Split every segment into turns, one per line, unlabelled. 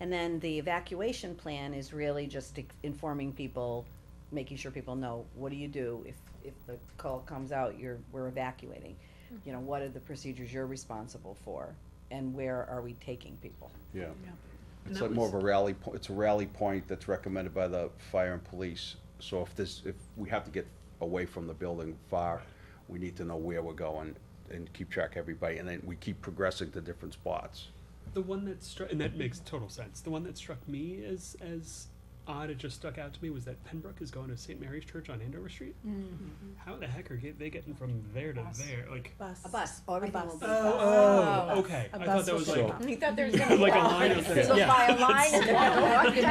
And then the evacuation plan is really just ex- informing people, making sure people know, what do you do if, if the call comes out, you're, we're evacuating?
Mm-hmm.
You know, what are the procedures you're responsible for, and where are we taking people?
Yeah.
And
It's
that
like more of
was-
a rally, po- it's a rally point that's recommended by the fire and police. So if this, if we have to get away from the building far, we need to know where we're going and keep track of everybody, and then we keep progressing to different spots.
The one that struck, and that makes total sense. The one that struck me as as odd, it just stuck out to me was that Pembroke is going to St. Mary's Church on Andover Street. How the heck are get, they getting from there to
Bus.
there? Like,
Bus.
A bus, everything will be.
bus.
oh,
Oh.
okay.
A
I thought
bus
that
will
was
take
like
off.
You thought there was
gonna
gonna
be
be
Like a line of things.
So
Yeah.
by a line in the middle,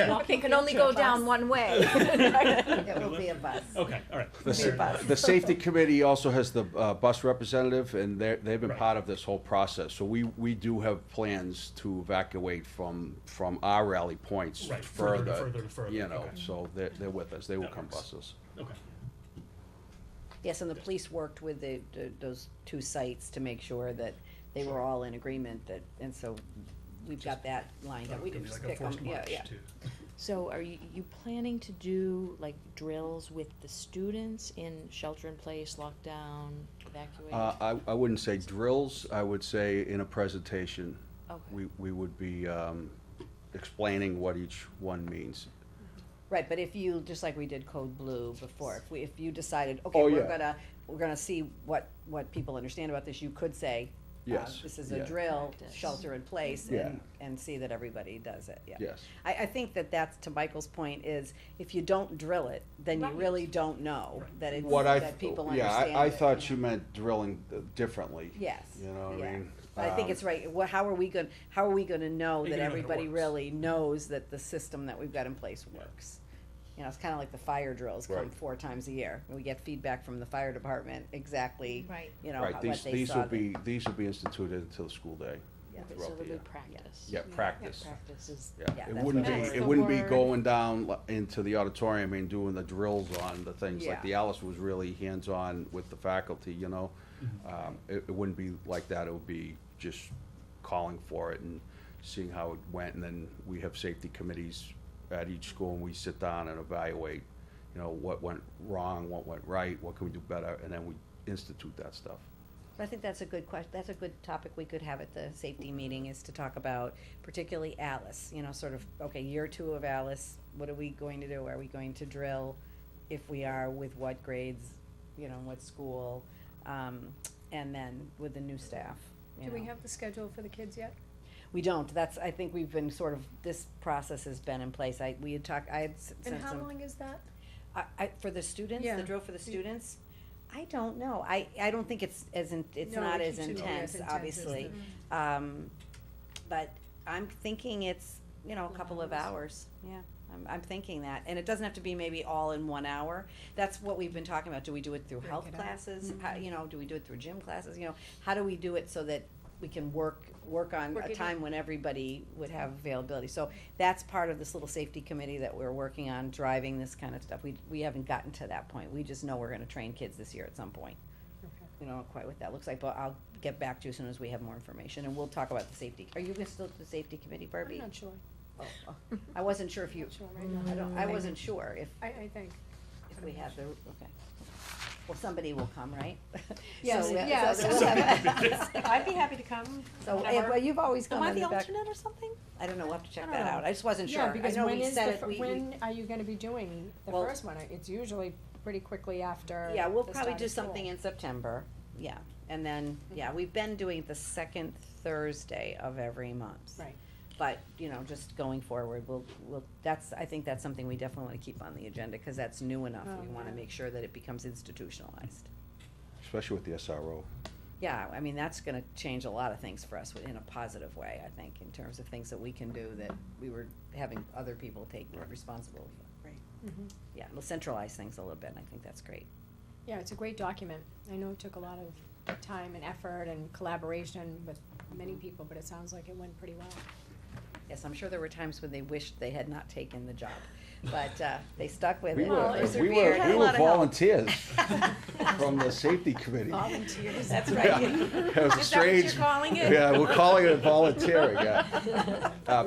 Okay.
but they can only go down one way.
It will be a bus.
okay, all right.
The
fair enough.
sa- the safety committee also has the uh, bus representative, and they're, they've been
Right.
part of this whole process. So we, we do have plans to evacuate from, from our rally points
Right, further to
further,
further to further,
you know,
okay.
so they're, they're with us, they will
That
come
works.
bus us.
Okay.
Yes, and the police worked with the, the- those two sites to make sure that they were all in agreement that, and so we've got that lined up. We didn't
Could be
just
like a
pick them,
forced
yeah,
march
yeah.
too.
So are you, you planning to do like drills with the students in shelter in place, lockdown,
Uh,
evacuate?
I, I wouldn't say drills, I would say in a presentation.
Okay.
We, we would be, um, explaining what each one means.
Right, but if you, just like we did Code Blue before, if we, if you decided, okay,
Oh,
we're
yeah.
gonna, we're gonna see what, what people understand about this, you could say, uh,
Yes,
this is a
yeah.
drill,
Practice.
shelter in place,
Yeah.
and, and see that everybody does it, yeah.
Yes.
I, I think that that's, to Michael's point, is if you don't drill it, then you
Right.
really don't know that it's,
What I,
that people understand
yeah, I, I
it,
thought
know.
you meant drilling uh, differently.
Yes.
You know what I
yeah.
mean?
But I think
Um,
it's right, well, how are we gonna, how are we gonna know that
You're gonna know that it
everybody
works.
really knows that the system that we've got in place works? You know, it's kinda like the fire drills come
Right.
four times a year, and we get feedback from the fire department exactly,
Right.
you know, how-
Right,
what they
these,
saw.
these will
that-
be, these will be instituted until the school day.
Yeah.
Okay, So
throughout the
there'll be
year.
practice.
Yeah, practice.
Practice is,
Yeah,
Yeah, it
that's
wouldn't be,
what I
it
was-
wouldn't be
That's the
going down li- into the auditorium and doing the drills on the things,
Yeah.
like the Alice was really hands-on with the faculty, you know? Um, it, it wouldn't be like that, it would be just calling for it and seeing how it went, and then we have safety committees at each school, and we sit down and evaluate, you know, what went wrong, what went right, what can we do better, and then we institute that stuff.
But I think that's a good question, that's a good topic we could have at the safety meeting, is to talk about particularly Alice, you know, sort of, okay, year two of Alice, what are we going to do? Are we going to drill? If we are, with what grades, you know, what school, um, and then with the new staff, you
Do we
know.
have the schedule for the kids yet?
We don't, that's, I think we've been sort of, this process has been in place, I, we had talked, I had s- sent some.
And how long is that?
I, I, for the students,
Yeah.
the drill for the students, I don't know, I, I don't think it's as in, it's
No,
not
it
as
shouldn't be as
intense,
intense as
obviously. Um, but I'm thinking it's, you know, a couple of hours, yeah, I'm, I'm thinking that, and it doesn't have to be maybe all in one hour. That's what we've been talking about, do we do it through
Break
health
it up. Mm-hmm.
classes, how, you know, do we do it through gym classes, you know, how do we do it so that we can work, work on
Work it
a
in.
time when everybody would have availability, so that's part of this little safety committee that we're working on, driving this kind of stuff. We, we haven't gotten to that point. We just know we're gonna train kids this year at some point. We don't know quite what that looks like, but I'll get back to you as soon as we have more information, and we'll talk about the safety. Are you gonna still do the safety committee,
I'm
Barbie?
not sure,
Oh, oh. I wasn't sure if you,
not sure right now.
I don't, I wasn't sure if,
I, I think.
if we have the, okay. Well, somebody will come, right?
Yes,
So, uh,
yeah,
so we'll have-
I'd be happy to come.
So, eh,
whenever.
well, you've always come
am I
in
the
the back.
alternate or something?
I don't know, we'll have to
I
check
don't
that
know.
out. I just wasn't sure.
Yeah,
I
because
know
when
we
is the,
said it,
fir-
we, we
when are you gonna be doing the
Well-
first one? It's usually pretty quickly after
Yeah, we'll
the
probably
start
do
of school.
something in September, yeah, and then, yeah, we've been doing it the second Thursday of every month.
Right.
But, you know, just going forward, we'll, we'll, that's, I think that's something we definitely wanna keep on the agenda, cause that's new enough,
Oh,
we wanna
yeah.
make sure that it becomes institutionalized.
Especially with the SRO.
Yeah, I mean, that's gonna change a lot of things for us in a positive way, I think, in terms of things that we can do that we were having other people take
Right.
responsibility for. Right.
Mhm.
Yeah, we'll centralize things a little bit, and I think that's great.
Yeah, it's a great document. I know it took a lot of time and effort and collaboration with many people, but it sounds like it went pretty well.
Yes, I'm sure there were times when they wished they had not taken the job, but uh, they stuck with
We
it.
Well,
were,
it's
we
severe.
were,
Had
we
a
were
lot of help.
volunteers from the safety committee.
Volunteers.
That's
Yeah,
right.
It was
Is that what you're
strange.
calling it?
Yeah, we're calling it volunteering, yeah. Uh,